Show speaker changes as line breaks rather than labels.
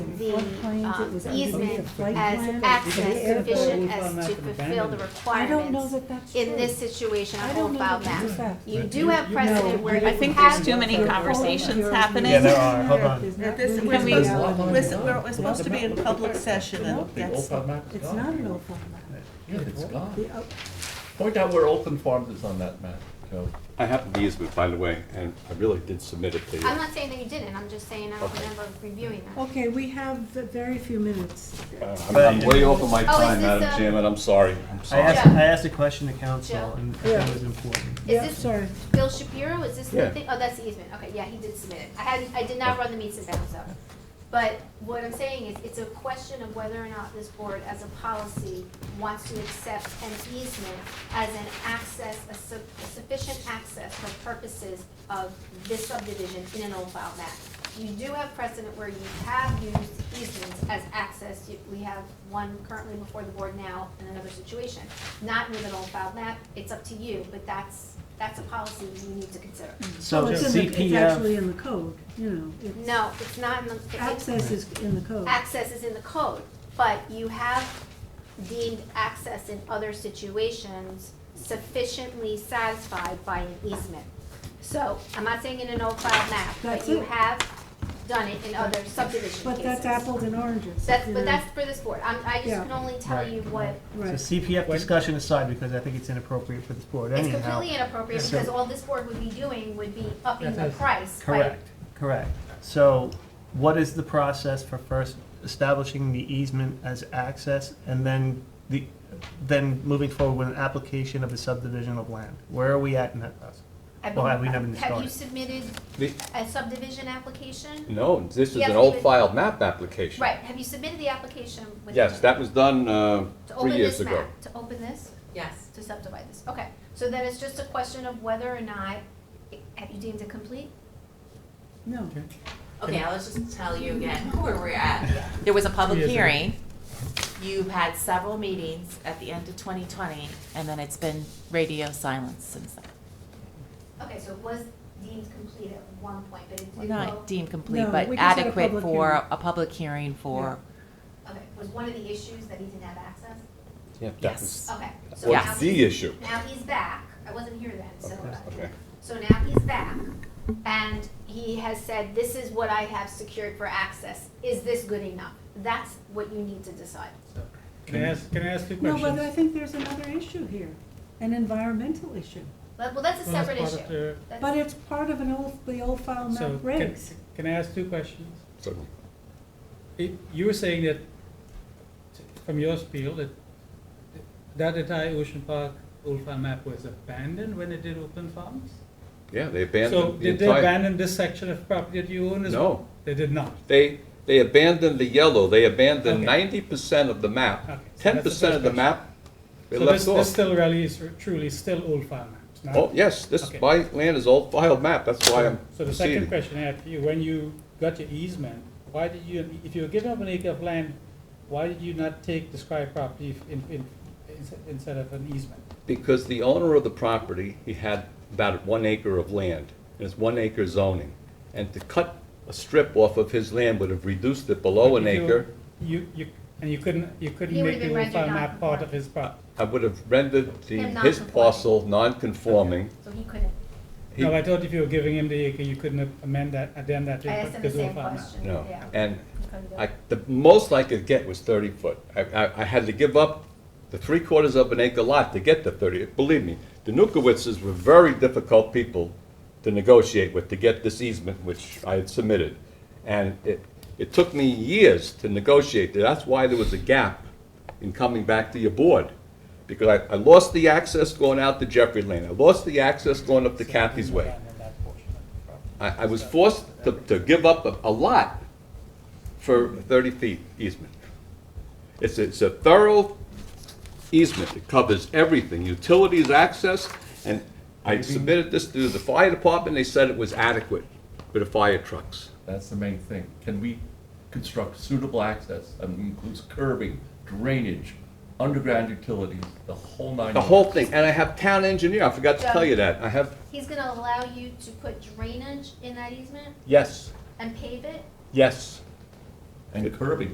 the
floodplains, it
um,
was underneath
easement
the flood plain,
as
it was
access
the airport.
sufficient
We've
as
gone back
to
and
fulfill the
abandoned
I don't know
requirements
that that's true.
in this situation
I
of
don't
Old
know
File
that that's
Map.
fact.
You
Right.
do have
You
precedent
know,
where you
I
have.
think there's too many
Your
Well,
conversations
phone, your-
happening.
Yeah, there are. Hold on.
There's
That
not
this-
room
Can
to
we-
go
There's a
out
lot
on
of
the
it.
road.
We're, we're supposed to be in public session
No,
and that's,
It's not an open map.
Yeah, it's gone.
The, uh,
Point out where open farms is on that map, Joe.
I have the easement, by the way, and I really did submit it to you.
I'm not saying that you didn't, I'm just saying I don't
Okay.
remember reviewing that.
Okay, we have very few minutes.
Uh, I'm I'm way over my
Oh, is
time,
this
Madam
a-
Chairman, I'm sorry, I'm
I
sorry.
asked, I asked a question to
Joe.
council and
Yeah.
it was important.
Yeah,
this-
sorry.
Bill Shapiro, is this the
Yeah.
thing? Oh, that's the easement. Okay, yeah, he did submit it. I hadn't, I did not run the meets and bounds though. But what I'm saying is, it's a question of whether or not this board, as a policy, wants to accept an easement as an access, a su- a sufficient access for purposes of this subdivision in an old file map. You do have precedent where you have used easements as access. You- We have one currently before the board now in another situation. Not with an old file map, it's up to you, but that's, that's a policy you need to consider.
Mm-hmm.
So
Well, it's in the- It's
CPF,
actually in the code, you know. it's-
No, it's not in the. it-
Access is in the code.
access is in the code, but you have deemed access in other situations sufficiently satisfied by an easement. So, I'm not saying in an old file map, but
That's
you
it.
have done it in other subdivision
But that's
cases.
apples and oranges.
That's,
you
but
know.
that's for this board, I'm, I just
Yeah.
can only tell
Right.
you what,
so
Right.
CPF discussion aside, because I think it's inappropriate for this board
it's
anyhow.
completely inappropriate,
So-
because all this board would be doing would be upping the price by
Correct, correct. So what is the process for first establishing the easement as access and then the, then moving forward with an application of a subdivision of land? Where are we at in that process?
I've
Well,
been-
have we never
Have
started?
you submitted
The-
a subdivision application?
No, this is
Yes,
an
we
old
would-
file map application.
Right, have you submitted the application with?
Yes, that was done uh,
To
three
open
years
this
ago.
map, to open this,
yes.
to subdivide this, okay. So then it's just a question of whether or not, have you deemed it complete?
No.
Okay, I'll just tell you again where we're at. There was a public hearing. You've had several meetings at the end of 2020, and then it's been radio silence since then.
Okay, so it was deemed complete at one point, but it
Well,
did
Not
go,
deemed complete,
No,
but
we just had a
adequate
public
for
hearing.
a public hearing for,
okay, was one of the issues that he didn't have access?
Yeah, that
yes.
was-
Okay.
That
so now
was the
he's-
issue.
Now he's back, I wasn't here then, so. uh,
Okay.
So now he's back, and he has said, this is what I have secured for access, is this good enough? That's what you need to decide.
Can I ask, can I ask two
No, but
questions?
I think there's another issue here, an environmental issue.
Well, well, that's a
Well, that's
separate
part of
issue.
the-
That's-
But it's part of an old, the old file
So,
map
can,
regs.
can I ask two questions?
So
I- You were saying that, t- from your spiel, that that entire Ocean Park old farm map was abandoned when they did open farms?
Yeah, they
So
abandoned the
did they
entire,
abandon this section of property that you own as well?
no,
They did not.
they, they abandoned the yellow, they abandoned
Okay.
ninety percent of the
Okay,
map.
so
Ten
that's the
percent of
first
the
question.
map, they
So
left
this, this
off.
still really is r- truly still old farm maps, not?
Oh, yes, this,
Okay.
my land is old file map, that's why I'm
So the second
proceeding.
question I have for you, when you got your easement, why did you, if you were given up an acre of land, why did you not take described property in, in, in- instead of an easement?
Because the owner of the property, he had about one acre of land, and it's one acre zoning. And to cut a strip off of his land would have reduced it below Oh, an
If you-
acre.
You, you, and you couldn't,
He
you couldn't
would've
make the
been
old farm
rendered
map part of his property.
I would have rendered the,
Him
his
non-conforming.
parcel non-conforming.
So he couldn't.
He-
No, I thought if you were giving him the acre, you couldn't amend that, addend that to
I asked him the
his old
same
farm map.
question.
No,
Yeah.
and
He couldn't do it.
I, the most I could get was thirty foot. I, I, I had to give up the three quarters of an acre lot to get the thirty. Believe me, the Nukowitzes were very difficult people to negotiate with to get this easement, which I had submitted. And it, it took me years to negotiate. That's why there was a gap in coming back to your board. Because I, I lost the access going out to Jeffrey Lane. I lost the access going up to Kathy's Way.
Abandon that portion of the property.
I, I was forced to, to give up a, a lot for thirty feet easement. It's, it's a thorough easement, it covers everything, utilities, access, and I submitted this to the fire department, they said it was adequate for the fire trucks.
That's the main thing. Can we construct suitable access that includes curbing, drainage, underground utilities, the whole nine?
The whole thing, and I have town engineer, I forgot to tell you that, I have,
He's gonna allow you to put drainage in that easement
yes,
and pave it?
yes,
and curbing.